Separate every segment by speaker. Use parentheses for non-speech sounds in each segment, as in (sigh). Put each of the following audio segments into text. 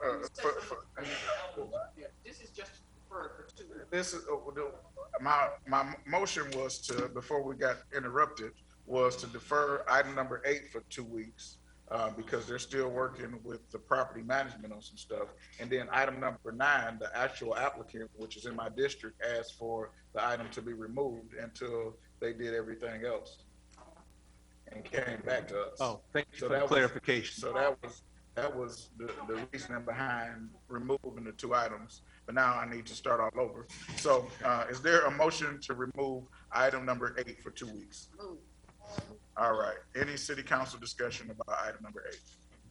Speaker 1: for, for,
Speaker 2: This is just for, for two.
Speaker 1: this is, uh, the- my, my motion was to, before we got interrupted, was to defer item number eight for two weeks, uh, because they're still working with the property management on some stuff. And then item number nine, the actual applicant, which is in my district, asked for the item to be removed until they did everything else. And came back to us.
Speaker 3: Oh, thank you
Speaker 1: So
Speaker 3: for
Speaker 1: that
Speaker 3: the
Speaker 1: was-
Speaker 3: clarification.
Speaker 1: So that was, that was the, the reasoning behind removing the two items, but now I need to start all over. So, uh, is there a motion to remove item number eight for two weeks?
Speaker 2: Move.
Speaker 1: All right, any city council discussion about item number eight?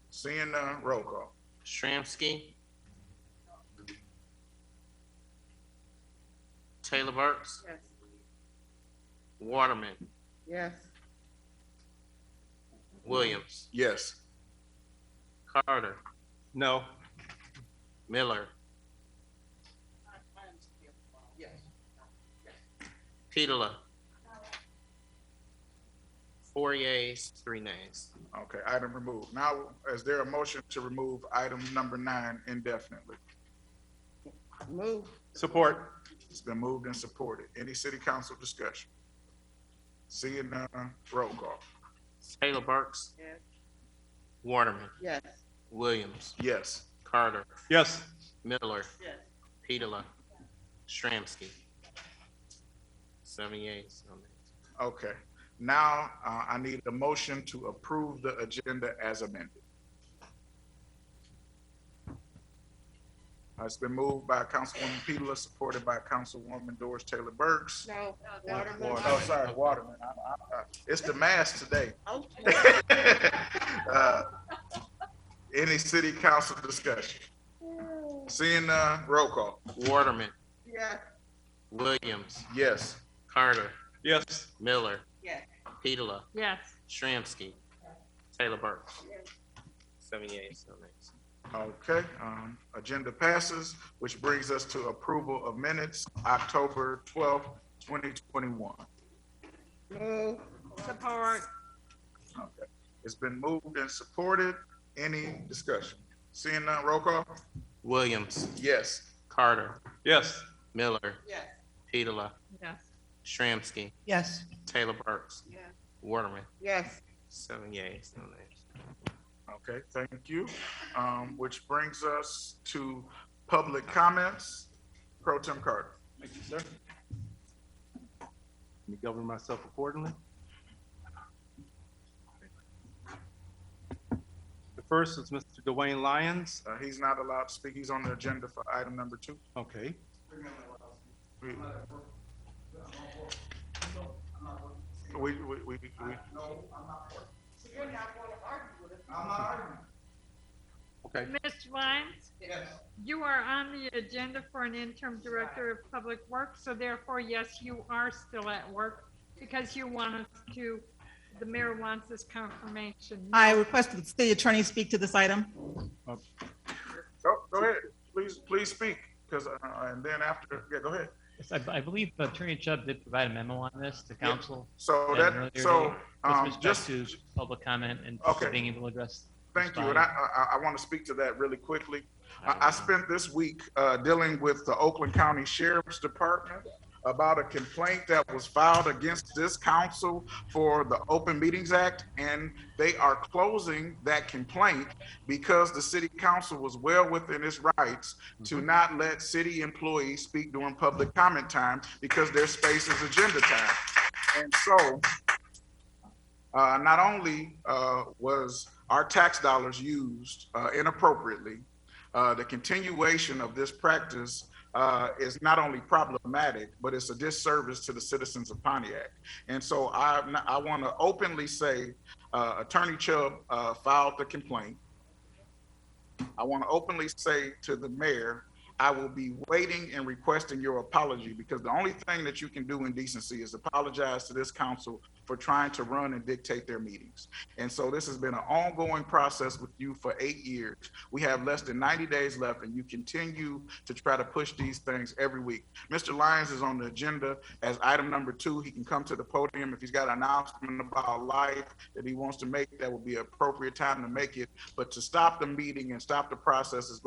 Speaker 1: Seeing none, roll call.
Speaker 4: Shramsky. Taylor Burks,
Speaker 2: Yes.
Speaker 4: Waterman,
Speaker 2: Yes.
Speaker 4: Williams,
Speaker 1: Yes.
Speaker 4: Carter,
Speaker 3: No,
Speaker 4: Miller,
Speaker 2: Yes.
Speaker 4: Petola. Four yeas, three nays.
Speaker 1: Okay, item removed. Now, is there a motion to remove item number nine indefinitely?
Speaker 2: Move.
Speaker 3: support.
Speaker 1: It's been moved and supported. Any city council discussion? Seeing none, roll call.
Speaker 4: Taylor Burks,
Speaker 2: Yes.
Speaker 4: Waterman,
Speaker 2: Yes.
Speaker 4: Williams,
Speaker 1: Yes.
Speaker 4: Carter,
Speaker 3: Yes,
Speaker 4: Miller,
Speaker 2: Yes.
Speaker 4: Petola, Shramsky. Seven yeas, no nays.
Speaker 1: Okay, now, uh, I need a motion to approve the agenda as amended. Uh, It's been moved by Councilwoman Pedala, supported by Councilwoman Doris Taylor Burks.
Speaker 2: No. uh,
Speaker 1: Oh, sorry, Waterman, I, I, I- it's the mask today. (laughs)
Speaker 2: Okay.
Speaker 1: Uh, Any city council discussion? Seeing, uh, roll call,
Speaker 4: Waterman,
Speaker 2: Yes.
Speaker 4: Williams,
Speaker 1: yes.
Speaker 4: Carter,
Speaker 3: yes,
Speaker 4: Miller,
Speaker 2: Yes.
Speaker 4: Petola,
Speaker 2: Yes.
Speaker 4: Shramsky, Taylor Burks.
Speaker 2: Yes.
Speaker 4: Seven yeas, no nays.
Speaker 1: Okay, um, agenda passes, which brings us to approval of minutes, October twelfth, twenty twenty-one.
Speaker 2: Move. Support.
Speaker 1: Okay, it's been moved and supported. Any discussion? Seeing none, roll call?
Speaker 4: Williams,
Speaker 1: Yes.
Speaker 4: Carter,
Speaker 3: yes,
Speaker 4: Miller,
Speaker 2: Yes.
Speaker 4: Petola,
Speaker 2: Yes.
Speaker 4: Shramsky,
Speaker 5: Yes,
Speaker 4: Taylor Burks,
Speaker 2: Yes.
Speaker 4: Waterman.
Speaker 2: Yes.
Speaker 4: Seven yeas, no nays.
Speaker 1: Okay, thank you. Um, which brings us to public comments. Pro Tem Carter.
Speaker 3: Thank you, sir. Let me govern myself accordingly. The first is Mr. Dwayne Lyons.
Speaker 1: Uh, he's not allowed to speak. He's on the agenda for item number two.
Speaker 3: Okay,
Speaker 1: We, we, we, we, we-
Speaker 3: okay.
Speaker 6: Mr. Lyons? You are on the agenda for an interim director of public works, so therefore, yes, you are still at work because you want us to, the mayor wants this confirmation.
Speaker 5: I request that the city attorney speak to this item.
Speaker 1: go, go ahead. Please, please speak, because, uh, and then after, yeah, go ahead.
Speaker 7: Yes, I, I believe Attorney Chubb did provide a memo on this to council
Speaker 1: So
Speaker 7: Yeah, earlier
Speaker 1: that, so,
Speaker 7: today, with
Speaker 1: um,
Speaker 7: respect
Speaker 1: just,
Speaker 7: to public comment and
Speaker 1: Okay.
Speaker 7: being able to address.
Speaker 1: Thank you, and I,
Speaker 7: respond.
Speaker 1: I, I want to speak to that really quickly. I, I spent this week, uh, dealing with the Oakland County Sheriff's Department about a complaint that was filed against this council for the Open Meetings Act, and they are closing that complaint because the city council was well within its rights to not let city employees speak during public comment time because their space is agenda time. And so, uh, not only uh, was our tax dollars used uh, inappropriately, uh, the continuation of this practice uh, is not only problematic, but it's a disservice to the citizens of Pontiac. And so I, I want to openly say uh, Attorney Chubb uh, filed the complaint. I want to openly say to the mayor, I will be waiting and requesting your apology because the only thing that you can do in decency is apologize to this council for trying to run and dictate their meetings. And so this has been an ongoing process with you for eight years. We have less than 90 days left and you continue to try to push these things every week. Mr. Lyons is on the agenda as item number two. He can come to the podium if he's got an announcement about life that he wants to make, that would be appropriate time to make it. But to stop the meeting and stop the process is